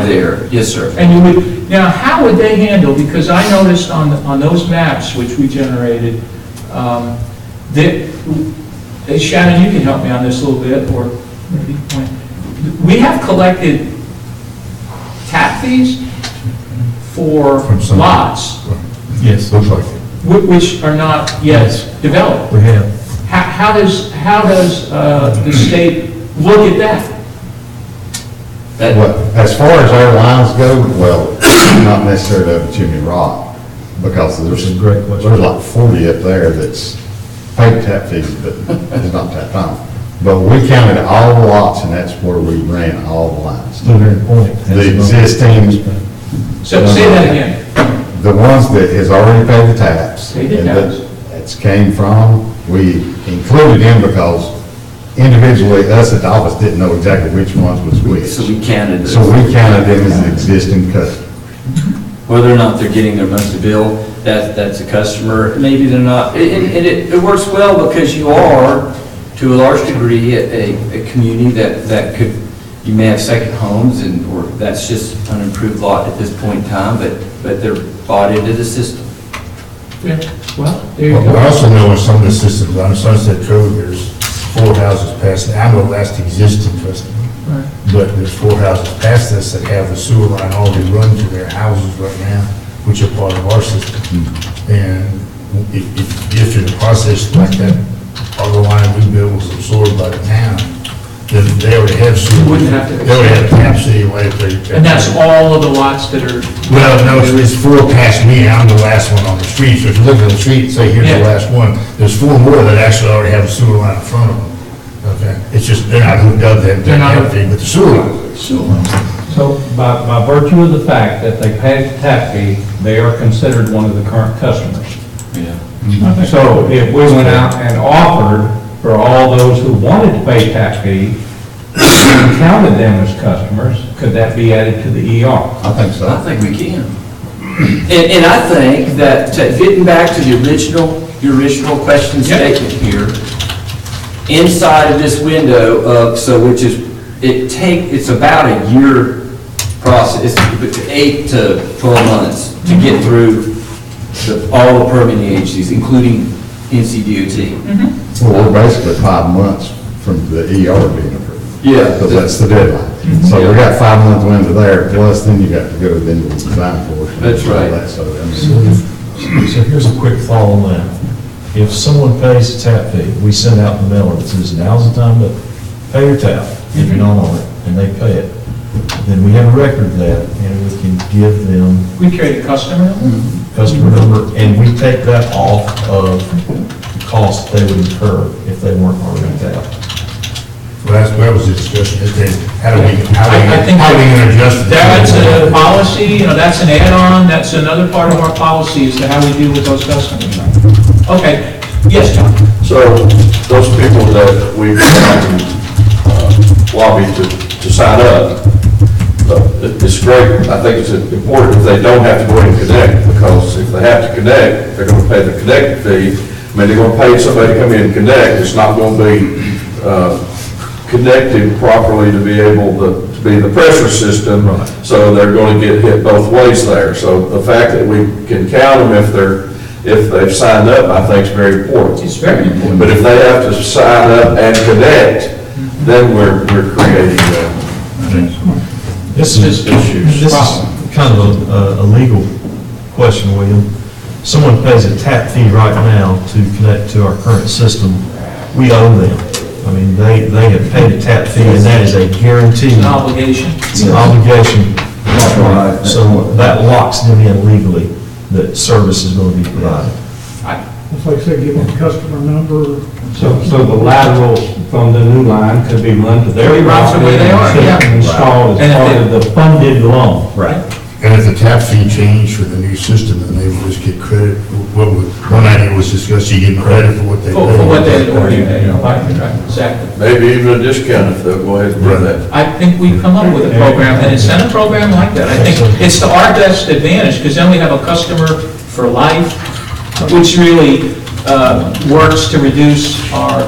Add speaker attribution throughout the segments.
Speaker 1: there, yes, sir.
Speaker 2: And you would, now, how would they handle, because I noticed on, on those maps which we generated, um, that, eh, Shannon, you can help me on this a little bit, or maybe, Wayne. we have collected tap fees for
Speaker 3: From some-
Speaker 2: lots,
Speaker 3: Yes. Looks like it.
Speaker 2: whi- which are not yet developed.
Speaker 3: We have.
Speaker 2: How, how does, how does uh, the state look at that?
Speaker 1: That,
Speaker 4: Well, as far as our lines go, well, not necessarily up Chimney Rock, because there's.
Speaker 3: That's a great question.
Speaker 4: There's like forty up there that's paid tap fees, but it's not tapped on. But we counted all the lots, and that's where we ran all the lines.
Speaker 3: Still very important.
Speaker 4: The existing,
Speaker 2: So say that again.
Speaker 4: the ones that has already paid the taps.
Speaker 2: Paid the
Speaker 4: and that-
Speaker 2: taps.
Speaker 4: That's came from, we included them because individually, us at the office didn't know exactly which ones was which.
Speaker 1: so we counted
Speaker 4: So
Speaker 1: it.
Speaker 4: we counted them as existing customers.
Speaker 1: Whether or not they're getting their monthly bill, that, that's a customer, maybe they're not. And, and- and it, it works well because you are, to a large degree, a, a- a community that, that could, you may have second homes and, or that's just an improved lot at this point in time, but, but they're bought into the system.
Speaker 2: Yeah, Well, there you
Speaker 3: Well, I
Speaker 2: go.
Speaker 3: also know in some of the systems, on Sunset Cove, there's four houses past, I know that's the existing customer,
Speaker 2: Right.
Speaker 3: but there's four houses past us that have the sewer line already run to their houses right now, which are part of our system.
Speaker 4: Mm-hmm.
Speaker 3: And if, if, if in a process like that, our line we built was absorbed by the town, then they already have sewer.
Speaker 2: You wouldn't have to-
Speaker 3: They already have taps anyway if they.
Speaker 2: And that's all of the lots that are,
Speaker 3: Well, no, it's it's four past me, and I'm the last one on the street, so if you look at the street, and say, here's the
Speaker 2: Yeah.
Speaker 3: last one, there's four more that actually already have a sewer line in front of them. Okay, it's just, they're not hooked up, they haven't
Speaker 2: They're not-
Speaker 3: done anything with the sewer line.
Speaker 5: So by, by virtue of the fact that they pay the tap fee, they are considered one of the current customers. Mm-hmm. So if we went out and offered for all those who wanted to pay tap fee, and counted them as customers, could that be added to the ER?
Speaker 4: I think so.
Speaker 1: I think we can. And, and I think that, to- getting back to the original, your original question
Speaker 2: Yeah.
Speaker 1: statement here, inside of this window of, so which is, it take, it's about a year process, it's eight to 12 months to get through the- all the permitting agencies, including NCDOT.
Speaker 4: Well, we're basically five months from the ER being approved.
Speaker 1: Yeah.
Speaker 4: Because that's the deadline. So we got five month window there, plus then you got to go to the design portion. and
Speaker 1: That's
Speaker 4: all
Speaker 1: right.
Speaker 4: that, So, I
Speaker 6: So
Speaker 4: mean,
Speaker 6: if- so here's a quick follow on that. If someone pays a tap fee, we send out the mailer that says now's the time to pay your tap, if you're not on it, and they pay it, then we have a record of that, and we can give them
Speaker 2: we carry the customer.
Speaker 6: customer number, and we take that off of the cost they would incur if they weren't already tapped.
Speaker 3: Well, that's, that was the discussion, is that, how do we, how do
Speaker 2: I- I
Speaker 3: we,
Speaker 2: think
Speaker 3: how do we adjust? the-
Speaker 2: That's a policy, you know, that's an add-on, that's another part of our policy as to how we deal with those customers. Okay, yes, John?
Speaker 7: So those people that we've uh, lobbied to, to sign up, uh, it- it's great. I think it's important if they don't have to go in and connect, because if they have to connect, they're gonna pay the connect fee. I mean, they're gonna pay somebody to come in and connect. It's not gonna be uh, connected properly to be able to, to be the pressure system. So they're gonna get hit both ways there. So the fact that we can count them if they're, if they've signed up, I think is very important.
Speaker 2: It's very important.
Speaker 7: But if they have to sign up and connect, then we're, we're creating uh,
Speaker 6: This is,
Speaker 7: issues.
Speaker 6: this is kind of a, a legal question, William. Someone pays a tap fee right now to connect to our current system, we owe them. I mean, they, they have paid a tap fee, and that is a guarantee,
Speaker 2: An obligation.
Speaker 6: it's an obligation. So that locks them in legally, that service is going to be provided.
Speaker 8: It's like I said, give them a customer number,
Speaker 5: So, so the laterals from the new line could be run to
Speaker 2: Could
Speaker 5: their
Speaker 2: be run to where they are,
Speaker 5: property
Speaker 2: yeah.
Speaker 5: and Installed
Speaker 2: And
Speaker 5: as
Speaker 2: if
Speaker 5: part
Speaker 2: they-
Speaker 5: of the funded loan.
Speaker 3: And if the tap fee changed for the new system, then they would just get credit, what would, one idea was discussed, you get credit for what they.
Speaker 2: For for what they had already paid, right, right, exactly.
Speaker 7: maybe even a discount if they'll go ahead and do that.
Speaker 2: I think we've come up with a program, an incentive program like that. I think it's to our best advantage, because then we have a customer for life, which really uh, works to reduce our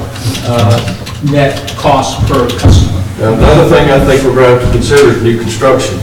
Speaker 2: uh, net cost per customer.
Speaker 7: Another thing I think we're going to have to consider is new construction.